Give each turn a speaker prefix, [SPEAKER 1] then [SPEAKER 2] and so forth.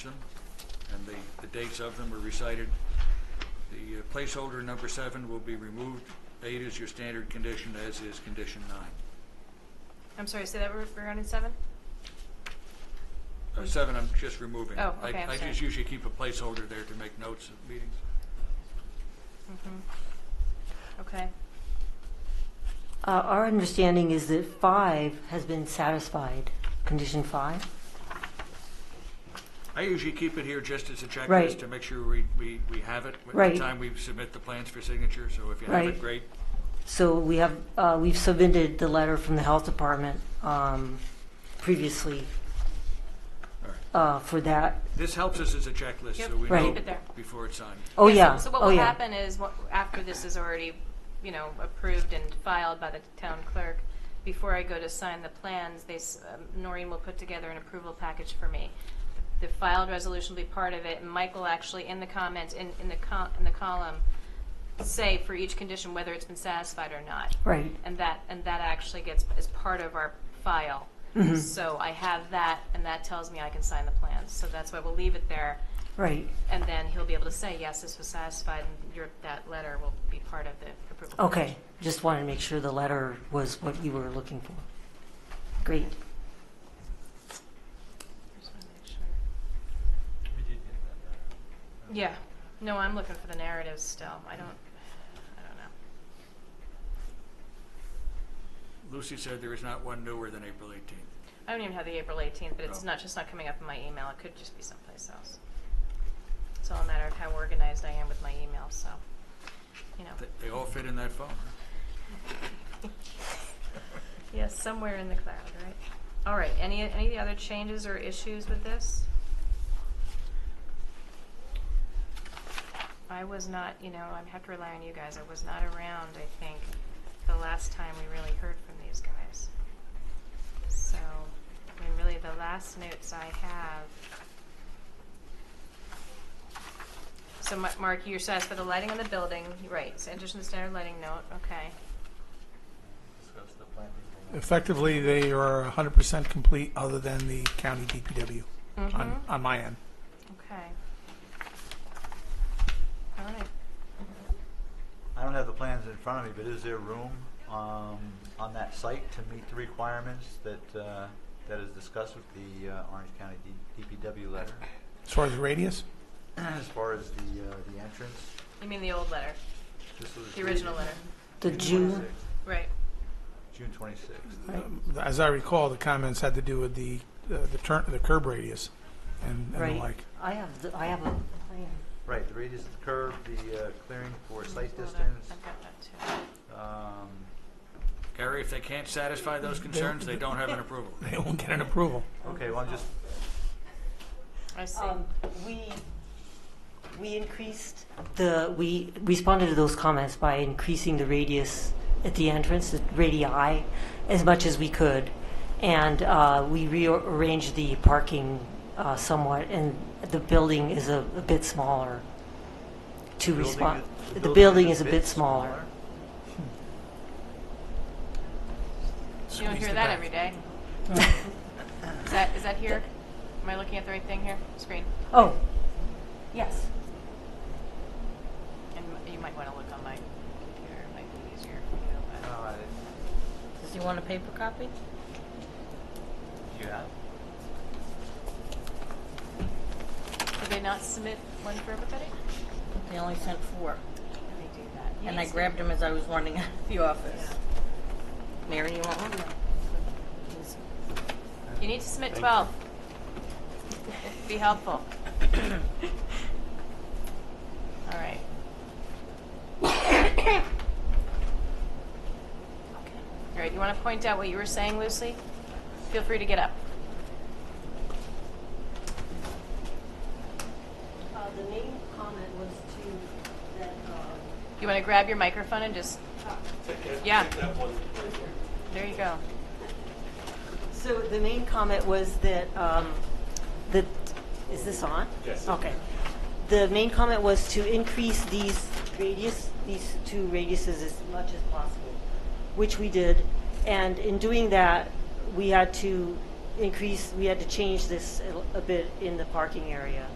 [SPEAKER 1] and the, the dates of them are recited. The uh, placeholder number seven will be removed. Eight is your standard condition, as is condition nine.
[SPEAKER 2] I'm sorry, say that we're regarding seven?
[SPEAKER 1] Uh, Seven, I'm just removing.
[SPEAKER 2] Mm-hmm. Oh,
[SPEAKER 1] I-
[SPEAKER 2] okay, I'm
[SPEAKER 1] I
[SPEAKER 2] sorry.
[SPEAKER 1] just usually keep a placeholder there to make notes of meetings.
[SPEAKER 2] Okay.
[SPEAKER 3] Uh, Our understanding is that five has been satisfied, condition five?
[SPEAKER 1] I usually keep it here just as a
[SPEAKER 3] Right.
[SPEAKER 1] checklist to make sure we, we, we have it by the
[SPEAKER 3] Right.
[SPEAKER 1] time we submit the plans for signature, so if you have it,
[SPEAKER 3] Right.
[SPEAKER 1] great.
[SPEAKER 3] So we have, uh, we've submitted the letter from the health department um, previously
[SPEAKER 1] All right.
[SPEAKER 3] uh, for that.
[SPEAKER 1] This helps us as a checklist, so
[SPEAKER 2] Yep,
[SPEAKER 1] we
[SPEAKER 3] Right.
[SPEAKER 1] know
[SPEAKER 3] keep
[SPEAKER 2] it there.
[SPEAKER 1] before it's signed.
[SPEAKER 3] Oh,
[SPEAKER 2] so-
[SPEAKER 3] yeah,
[SPEAKER 2] So what
[SPEAKER 3] oh,
[SPEAKER 2] will
[SPEAKER 3] yeah.
[SPEAKER 2] happen is, what- after this is already, you know, approved and filed by the town clerk, before I go to sign the plans, they, s- um, Noreen will put together an approval package for me. The filed resolution will be part of it, and Michael actually, in the comments, in, in the col, in the column, say for each condition whether it's been satisfied or not.
[SPEAKER 3] Right,
[SPEAKER 2] And that, and that actually gets, is part of our file. So I have that, and that tells me I can sign the plans. So that's why we'll leave it there.
[SPEAKER 3] right,
[SPEAKER 2] And then he'll be able to say, yes, this was satisfied, and your, that letter will be part of the approval.
[SPEAKER 3] okay. Just wanted to make sure the letter was what you were looking for. Great.
[SPEAKER 2] Just wanna make sure. Yeah, no, I'm looking for the narratives still. I don't, I don't know.
[SPEAKER 1] Lucy said there is not one newer than April 18th.
[SPEAKER 2] I don't even have the April 18th, but it's
[SPEAKER 1] Oh.
[SPEAKER 2] not, just not coming up in my email. It could just be someplace else. It's all a matter of how organized I am with my email, so, you know.
[SPEAKER 1] They- They all fit in that phone.
[SPEAKER 2] Yes, somewhere in the cloud, right? All right, any, any of the other changes or issues with this? I was not, you know, I have to rely on you guys, I was not around, I think, the last time we really heard from these guys. So, I mean, really, the last notes I have. So, Ma- Mark, you're satisfied with the lighting on the building, right, so addition to standard lighting note, okay.
[SPEAKER 4] Effectively, they are 100% complete, other than the county DPW
[SPEAKER 2] Mhm.
[SPEAKER 4] on, on my end.
[SPEAKER 2] Okay. All right.
[SPEAKER 5] I don't have the plans in front of me, but is there room um, on that site to meet the requirements that, uh, that is discussed with the uh, Orange County D- DPW letter?
[SPEAKER 4] As far as the radius,
[SPEAKER 5] As far as the, uh, the entrance?
[SPEAKER 2] You mean the old letter,
[SPEAKER 5] This was
[SPEAKER 2] the original letter?
[SPEAKER 5] dated
[SPEAKER 3] The June,
[SPEAKER 5] 26th,
[SPEAKER 2] Right.
[SPEAKER 5] June twenty-sixth.
[SPEAKER 3] right,
[SPEAKER 4] um, as I recall, the comments had to do with the, uh, the turn, the curb radius and, and the
[SPEAKER 3] right.
[SPEAKER 4] like.
[SPEAKER 3] I have, the I have a plan.
[SPEAKER 5] Right, the radius of the curve, the uh, clearing for sight
[SPEAKER 2] Hold on,
[SPEAKER 5] distance.
[SPEAKER 2] I've got that too.
[SPEAKER 5] um,
[SPEAKER 1] Gary, if they can't satisfy those concerns, they don't have an approval.
[SPEAKER 4] They won't get an approval.
[SPEAKER 5] Okay, well, I'm just,
[SPEAKER 2] I see.
[SPEAKER 3] Um, We, we increased the, we responded to those comments by increasing the radius at the entrance, the radii, as much as we could. And uh, we rearranged the parking uh, somewhat, and the building is a a bit smaller to
[SPEAKER 5] building
[SPEAKER 3] respond.
[SPEAKER 5] is-
[SPEAKER 3] The building is a bit smaller.
[SPEAKER 2] You don't
[SPEAKER 4] Squeeze
[SPEAKER 2] hear
[SPEAKER 4] the
[SPEAKER 2] that
[SPEAKER 4] back.
[SPEAKER 2] every day. Is that, is that here? Am I looking at the right thing here? Screen.
[SPEAKER 3] Oh, yes.
[SPEAKER 2] And m- you might want to look on my computer, it might be easier. you know, but-
[SPEAKER 5] Uh,
[SPEAKER 3] Does he want a paper copy?
[SPEAKER 5] do you have?
[SPEAKER 2] Did they not submit one for everybody?
[SPEAKER 6] They only sent four,
[SPEAKER 2] Did they do that? You
[SPEAKER 6] and
[SPEAKER 2] need
[SPEAKER 6] I
[SPEAKER 2] to-
[SPEAKER 6] grabbed them as I was running out of the office. Mary, you want one?
[SPEAKER 2] You need to submit
[SPEAKER 5] Thank you.
[SPEAKER 2] 12. Be helpful. All right. All right, you want to point out what you were saying, Lucy? Feel free to get up.
[SPEAKER 3] The main comment was to, that, uh,
[SPEAKER 2] You want to grab your microphone and just, yeah. There you go.
[SPEAKER 3] So the main comment was that, um, that, is this on? Yes. Okay. The main comment was to increase these radius, these two radiuses as much as possible, which we did. And in doing that, we had to increase, we had to change this a- a bit in the parking area.